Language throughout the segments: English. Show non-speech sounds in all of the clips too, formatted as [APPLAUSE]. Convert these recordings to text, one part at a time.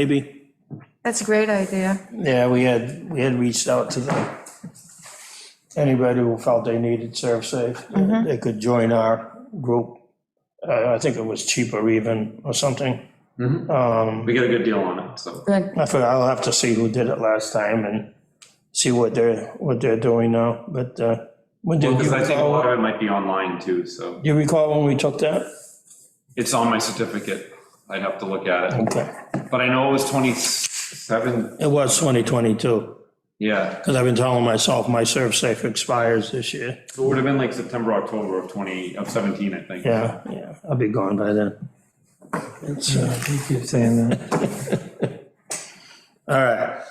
maybe. That's a great idea. Yeah, we had, we had reached out to the, anybody who felt they needed ServSafe, they could join our group. Uh, I, I think it was cheaper even, or something. We get a good deal on it, so. Good. I forgot, I'll have to see who did it last time and see what they're, what they're doing now, but, uh, when did Because you I think a lot recall? of it might be online too, so Do you recall when we took that? it's on my certificate. I'd have to look at it. Okay, But I know it was 27, it was 2022, yeah. because I've been telling myself my ServSafe expires this year. It would have been like September, October of 20, of 17, I think. Yeah, yeah, I'll be gone by then. It's, uh, You keep saying that. [LAUGHS] All right.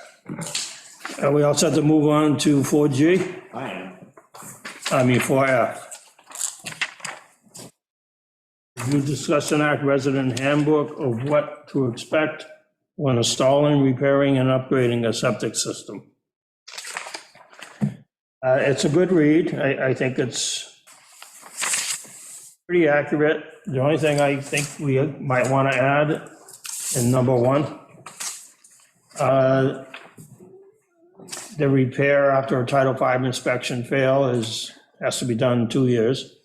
Are we all set to move on to 4G? I am. I mean, 4F. You discussed an act resident handbook of what to expect when installing, repairing, and upgrading a septic system. Uh, It's a good read. I, I think it's pretty accurate. The only thing I think we might want to add in number one, uh, the repair after a Title V inspection fail is, has to be done in two years.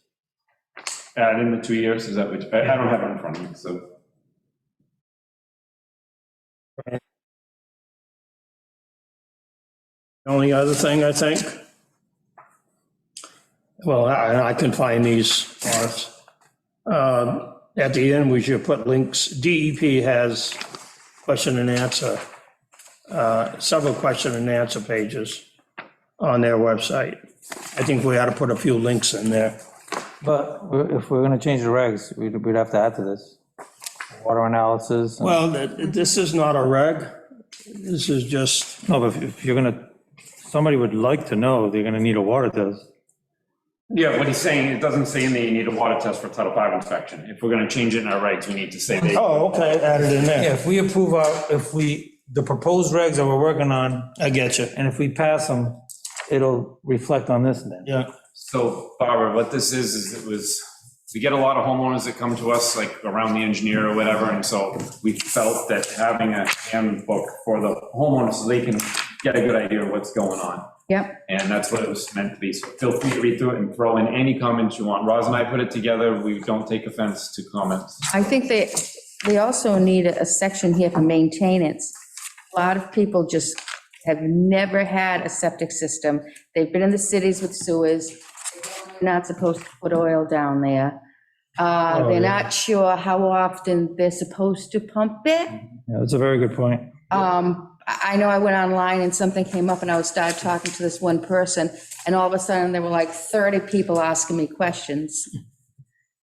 Add in the two years, is that which, I I don't have it in front of me, so. The Only other thing, I think, well, I, I can find these, Lawrence. Um, At the end, we should put links, DEP has question and answer, uh, several question and answer pages on their website. I think we ought to put a few links in there. But we're- if we're gonna change the regs, we'd, we'd have to add to this. Water analysis. and- Well, th- this is not a reg, this is just, No, but if- if you're gonna, somebody would like to know they're gonna need a water test. Yeah, what he's saying, it doesn't say in there you need a water test for Title V inspection. If we're going to change it in our regs, we need to say they. oh, okay, add it in Yeah, there. if we approve our, if we, the proposed regs that we're working on, I get you, and if we pass them, it'll reflect on this then. yeah. So Barbara, what this is, is it was, we get a lot of homeowners that come to us, like around the engineer or whatever, and so we felt that having a handbook for the homeowners, so they can get a good idea of what's going on. Yep. And that's what it was meant to be, so feel free to read through it and throw in any comments you want. Roz and I put it together, we don't take offense to comments. I think they, they also need a section here for maintenance. A lot of people just have never had a septic system. They've been in the cities with sewers. They're not supposed to put oil down there. Uh, They're not sure how often they're supposed to pump it. Yeah, that's a very good point. Um, I I know I went online and something came up and I was started talking to this one person and all of a sudden there were like 30 people asking me questions.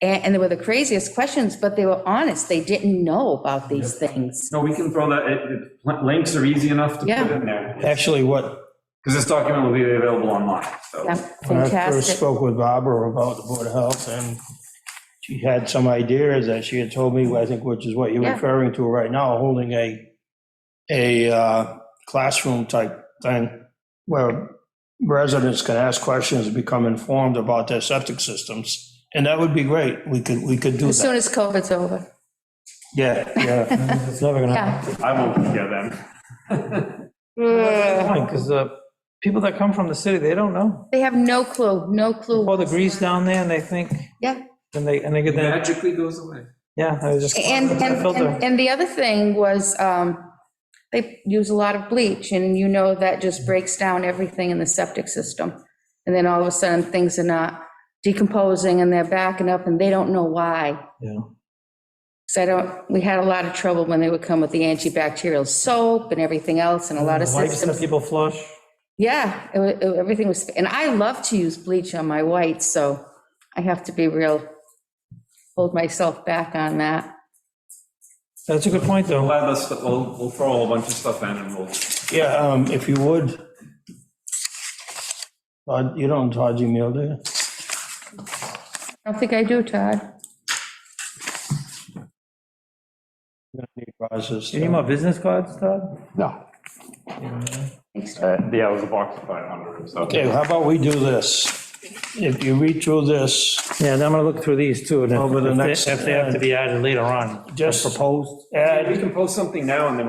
And, and they were the craziest questions, but they were honest. They didn't know about these things. No, we can throw that, it- it- links are easy enough to put Yeah. in there, Actually, what, because this document will be available online, so. Yeah, when I first Fantastic. spoke with Barbara about the Board of Health, and she had some ideas that she had told me, I think, which is what you're Yeah. referring to right now, holding a, a uh, classroom type thing where residents can ask questions, become informed about their septic systems. And that would be great. We could, we could do As soon that. as COVID's over. Yeah, yeah. It's never gonna happen. Yeah. I won't hear them. Because the uh, people that come from the city, they don't know. They have no clue, no clue. All the grease down there and they think, Yeah. and they, and they get that, Magically goes away. yeah, I was just. And, and, Filter. and- and the other thing was, um, they use a lot of bleach, and you know that just breaks down everything in the septic system. And then all of a sudden, things are not decomposing, and they're backing up, and they don't know why. Yeah. So I don't, we had a lot of trouble when they would come with the antibacterial soap and everything else, and a lot of Wipes that systems. people flush. Yeah, it wa- it- everything was, and I love to use bleach on my whites, so I have to be real, hold myself back on that. That's a good point, though. We'll add this, we'll, we'll throw a whole bunch of stuff in and we'll, Yeah, um, if you would. Todd, You don't Todd's email, do you? I don't think I do, Todd. You don't need Roz's You need stuff. more business cards, Todd? No. Thanks, Todd. uh, yeah, it was a box of 500, so. Okay, how about we do this? If you read through this, Yeah, and I'm gonna look through these too. and if- Over the if they- next- If they have to be added later on. Just- proposed. add We can post something now and then